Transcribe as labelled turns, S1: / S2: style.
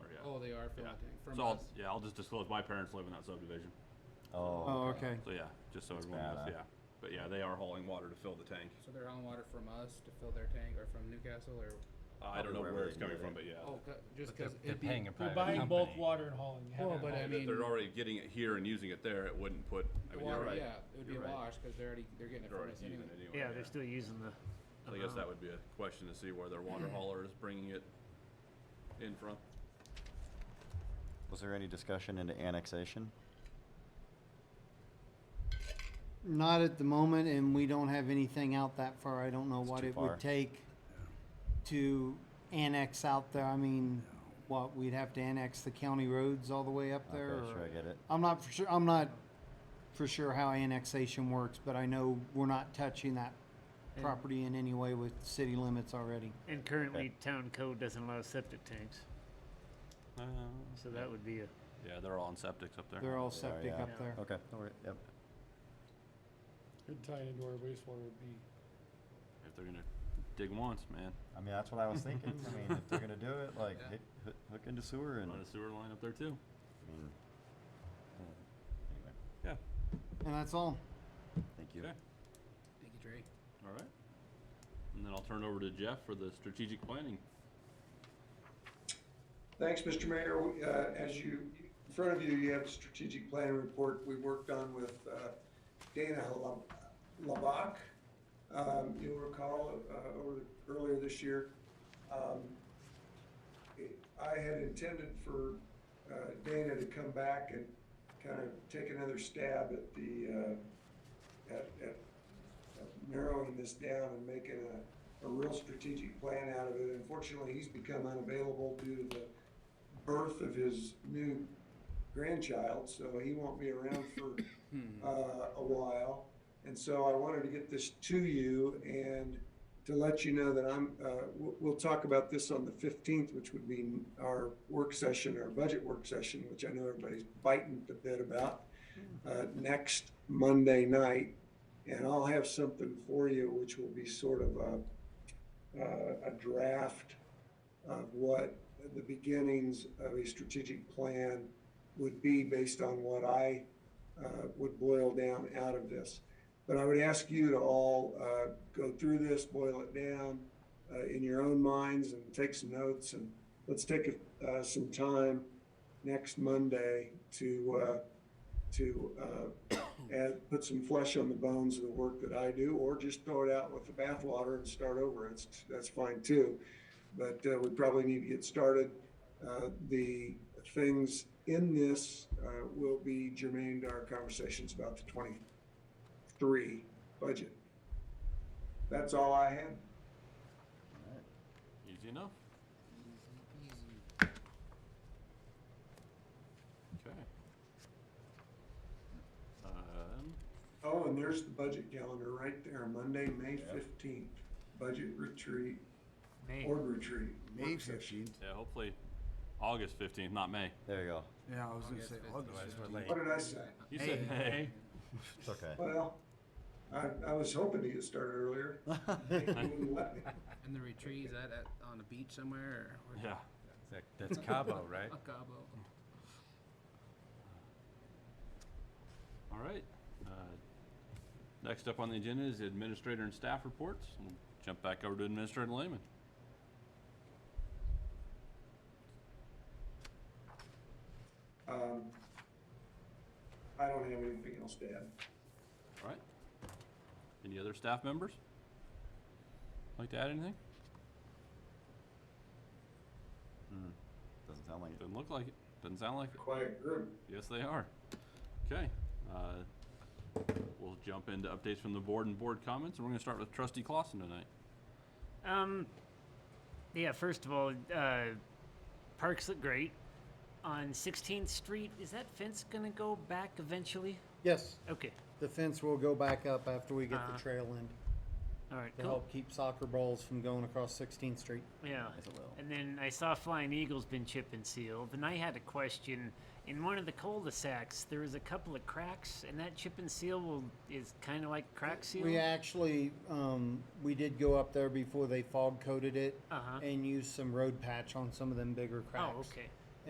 S1: require for
S2: Yeah.
S1: anything Oh, from
S2: So I'll,
S1: us.
S2: yeah, I'll just disclose, my parents live in that subdivision,
S3: Uh,
S1: Oh, okay.
S2: so yeah, just so everyone knows,
S4: bad, huh?
S2: yeah. But yeah, they are hauling water to fill the tank.
S1: So they're hauling water from us to fill their tank, or from Newcastle, or
S2: Uh, I don't know
S4: wherever
S2: where
S4: they
S2: it's coming
S4: get it.
S2: from, but yeah.
S1: oh, c- just
S5: They're-
S1: because
S5: They're
S1: it'd be.
S5: paying a
S6: You're
S5: private company.
S6: buying bulk water and hauling. You
S1: Well,
S6: haven't
S1: but I
S6: hauled
S1: mean,
S2: They're already getting it here and using it there, it wouldn't put, I
S1: the
S2: mean, you're
S1: water,
S2: right.
S1: yeah, it would be
S2: You're right.
S1: washed because they're already they're getting it
S2: They're
S1: from
S2: already
S1: us
S2: using
S1: anyway.
S2: it anyway.
S7: Yeah, they're still using the.
S2: So I guess that would be a question to see where their water hauler is bringing it in from.
S4: Was there any discussion into annexation?
S3: Not at the moment, and we don't have anything out that far. I don't know what
S4: too
S3: it
S4: far.
S3: would take to annex out there. I mean, what, we'd have to annex the county roads all the way up there?
S4: Okay,
S3: or-
S4: sure, I get it.
S3: I'm not for sure, I'm not for sure how annexation works, but I know we're not touching that
S7: And-
S3: property in any way with city limits already.
S7: And currently, town code doesn't allow septic tanks, so that would be a.
S2: Yeah, they're all on septics up there.
S3: They're all
S4: They are,
S3: septic
S4: yeah.
S3: up there.
S4: Okay, no worry- yep.
S6: Could tie into our wastewater would be.
S2: If they're gonna dig once, man,
S4: I mean, that's what I was thinking. I mean, if they're gonna do it, like, hit- hoo- hook into sewer and, I
S2: run a sewer line up there too.
S4: mean, uh, anyway,
S2: Yeah,
S3: And that's all.
S4: thank you.
S2: okay,
S1: Thank you, Dre.
S2: all right. And then I'll turn it over to Jeff for the strategic planning.
S8: Thanks, Mr. Mayor. We, uh, As you, in front of you, you have a strategic plan report we worked on with uh, Dana Lab- Labak. Um, You'll recall, uh, over, earlier this year, um, it- I had intended for uh, Dana to come back and kind of take another stab at the, uh, at, at of narrowing this down and making a, a real strategic plan out of it. Unfortunately, he's become unavailable due to the birth of his new grandchild, so he won't be around for uh, a while. And so I wanted to get this to you and to let you know that I'm, uh, we'll, we'll talk about this on the 15th, which would be our work session, our budget work session, which I know everybody's biting the bit about, uh, next Monday night. And I'll have something for you, which will be sort of a, uh, a draft of what the beginnings of a strategic plan would be based on what I uh, would boil down out of this. But I would ask you to all uh, go through this, boil it down uh, in your own minds and take some notes. And let's take uh, some time next Monday to, uh, to uh, add, put some flesh on the bones of the work that I do, or just throw it out with the bathwater and start over. It's, that's fine too but uh, we probably need to get started. Uh, The things in this uh, will be germane to our conversations about the 23 budget. That's all I had.
S2: Easy enough. Okay. Um,
S8: Oh, and there's the budget calendar right there, Monday, May 15th, budget retreat,
S7: May.
S8: board retreat.
S9: May
S8: work session.
S9: fifteenth.
S2: yeah, hopefully August fifteenth, not May.
S4: There you go.
S9: Yeah, I was gonna say August
S5: Otherwise, we're
S9: fifteenth.
S5: late.
S8: What did I say?
S2: You said May.
S4: It's okay.
S8: Well, I, I was hoping to get started earlier. They wouldn't let me.
S1: And the retreat is that at, on a beach somewhere or, or
S2: Yeah.
S5: That- That's Cabo, right?
S1: a Cabo?
S2: All right. Uh, Next up on the agenda is the administrator and staff reports. We'll Jump back over to Administrator Lehman.
S8: Um, I don't have anything else to add.
S2: All right. Any other staff members? Like to add anything?
S4: Doesn't sound like it.
S2: Doesn't look like it. Doesn't sound like it.
S8: Quiet group.
S2: Yes, they are. Okay. uh, We'll jump into updates from the board and board comments, and we're gonna start with trustee Clausen tonight.
S7: Um, yeah. First of all, uh, parks look great. On 16th Street, is that fence gonna go back eventually?
S3: Yes,
S7: Okay.
S3: the fence will go back up after we get
S7: Uh-huh.
S3: the trail in
S7: All right.
S3: to
S7: Cool.
S3: help keep soccer balls from going across 16th Street.
S7: Yeah.
S4: Yes, it will.
S7: And then I saw Flying Eagle's been chip and sealed, and I had a question. In one of the cul-de-sacs, there was a couple of cracks, and that chip and seal will, is kind of like crack seal.
S3: We actually, um, we did go up there before they fog coated it
S7: Uh-huh.
S3: and used some road patch on some of them bigger cracks.
S7: Oh, okay.